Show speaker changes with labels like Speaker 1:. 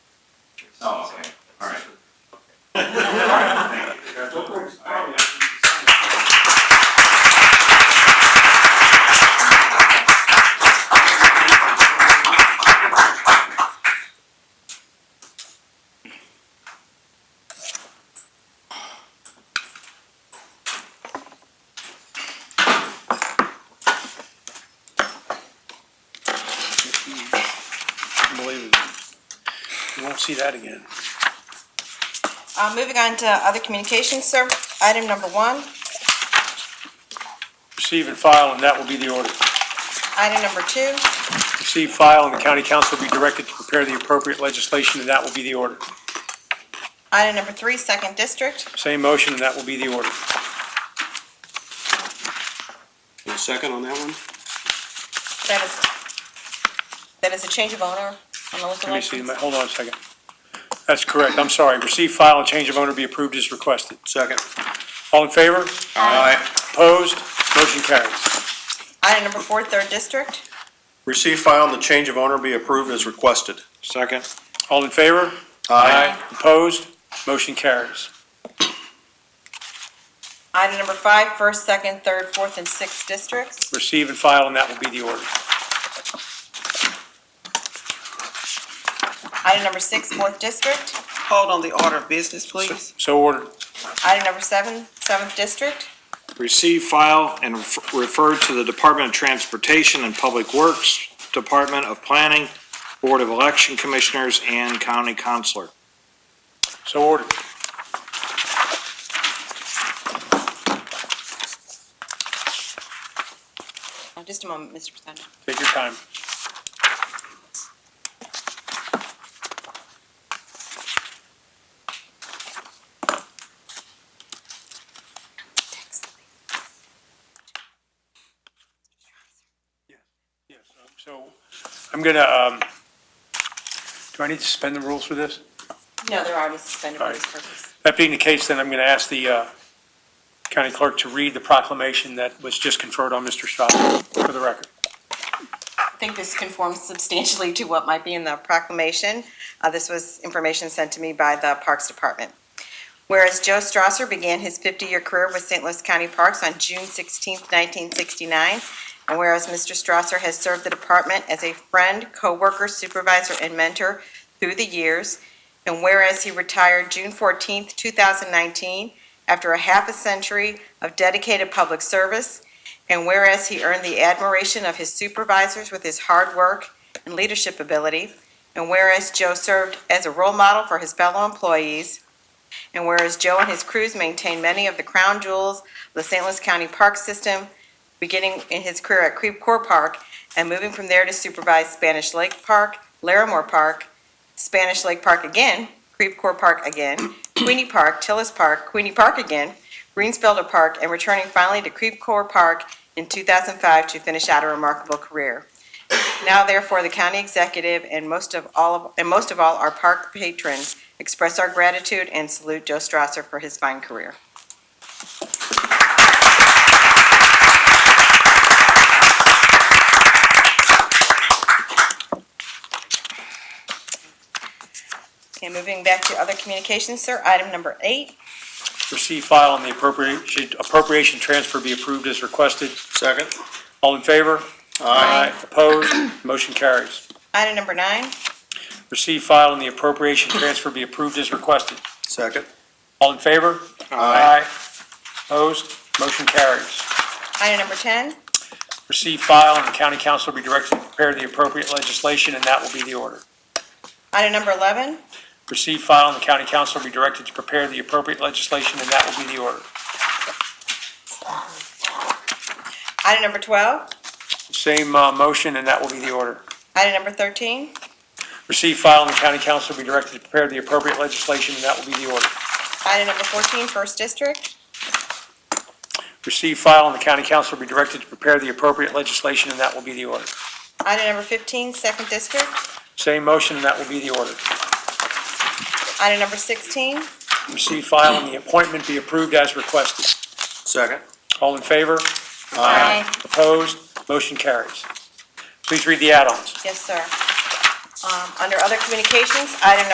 Speaker 1: Oh, okay, all right. Thank you. All right.
Speaker 2: Unbelievable. You won't see that again.
Speaker 3: Uh, moving on to other communications, sir. Item number one,
Speaker 2: Receive and file, and that will be the order.
Speaker 3: item number two,
Speaker 2: Receive, file, and the county council will be directed to prepare the appropriate legislation, and that will be the order.
Speaker 3: item number three, second district,
Speaker 2: Same motion, and that will be the order.
Speaker 4: A second on that one?
Speaker 3: that is, that is a change of owner on the liquor
Speaker 2: Let me see,
Speaker 3: license.
Speaker 2: my- hold on a second. That's correct, I'm sorry. Receive, file, and change of owner be approved as requested.
Speaker 4: Second.
Speaker 2: All in favor?
Speaker 4: Aye.
Speaker 2: Opposed? Motion carries.
Speaker 3: Item number four, third district,
Speaker 4: Receive, file, and the change of owner be approved as requested. Second.
Speaker 2: All in favor?
Speaker 4: Aye.
Speaker 2: Opposed? Motion carries.
Speaker 3: item number five, first, second, third, fourth, and sixth districts,
Speaker 2: Receive and file, and that will be the order.
Speaker 3: item number six, fourth district,
Speaker 5: Hold on the order of business, please.
Speaker 2: So ordered.
Speaker 3: item number seven, seventh district,
Speaker 6: Receive, file, and ref- refer to the Department of Transportation and Public Works, Department of Planning, Board of Election Commissioners, and County Counselor.
Speaker 2: So ordered.
Speaker 3: Uh, just a moment, Mr. Presenter.
Speaker 2: Take your time. Yes, um, so I'm gonna, um, do I need to suspend the rules for this?
Speaker 3: No, they're already suspended for
Speaker 2: All
Speaker 3: this
Speaker 2: right.
Speaker 3: purpose.
Speaker 2: That being the case, then I'm gonna ask the, uh, county clerk to read the proclamation that was just conferred on Mr. Strauss for the record.
Speaker 3: I think this conforms substantially to what might be in the proclamation. Uh, this was information sent to me by the Parks Department. Whereas Joe Strasser began his 50-year career with St. Louis County Parks on June 16, 1969, and whereas Mr. Strasser has served the department as a friend, coworker, supervisor, and mentor through the years, and whereas he retired June 14, 2019, after a half a century of dedicated public service, and whereas he earned the admiration of his supervisors with his hard work and leadership ability, and whereas Joe served as a role model for his fellow employees, and whereas Joe and his crews maintain many of the crown jewels of the St. Louis County Park System, beginning in his career at Creve Coeur Park and moving from there to supervise Spanish Lake Park, Larimore Park, Spanish Lake Park again, Creve Coeur Park again, Queenie Park, Tillis Park, Queenie Park again, Greensfelder Park, and returning finally to Creve Coeur Park in 2005 to finish out a remarkable career. Now therefore, the county executive and most of all, and most of all, our park patrons express our gratitude and salute Joe Strasser for his fine career. Okay, moving back to other communications, sir, item number eight,
Speaker 2: Receive, file, and the appropriation, appropriation transfer be approved as requested.
Speaker 4: Second.
Speaker 2: All in favor? Aye. Opposed? Motion carries.
Speaker 3: item number nine,
Speaker 2: Receive, file, and the appropriation transfer be approved as requested.
Speaker 4: Second.
Speaker 2: All in favor? Aye. Opposed? Motion carries.
Speaker 3: item number 10,
Speaker 2: Receive, file, and the county council will be directed to prepare the appropriate legislation, and that will be the order.
Speaker 3: item number 11,
Speaker 2: Receive, file, and the county council will be directed to prepare the appropriate legislation, and that will be the order.
Speaker 3: item number 12,
Speaker 2: Same, uh, motion, and that will be the order.
Speaker 3: item number 13,
Speaker 2: Receive, file, and the county council will be directed to prepare the appropriate legislation, and that will be the order.
Speaker 3: Item number 14, First District.
Speaker 2: Receive, file, and the county council will be directed to prepare the appropriate legislation, and that will be the order.
Speaker 3: Item number 15, Second District.
Speaker 2: Same motion, and that will be the order.
Speaker 3: Item number 16.
Speaker 2: Receive, file, and the appointment be approved as requested.
Speaker 4: Second.
Speaker 2: All in favor?
Speaker 3: Aye.
Speaker 2: Opposed? Motion carries. Please read the add-ons.
Speaker 3: Yes, sir. Um, Under Other Communications, item number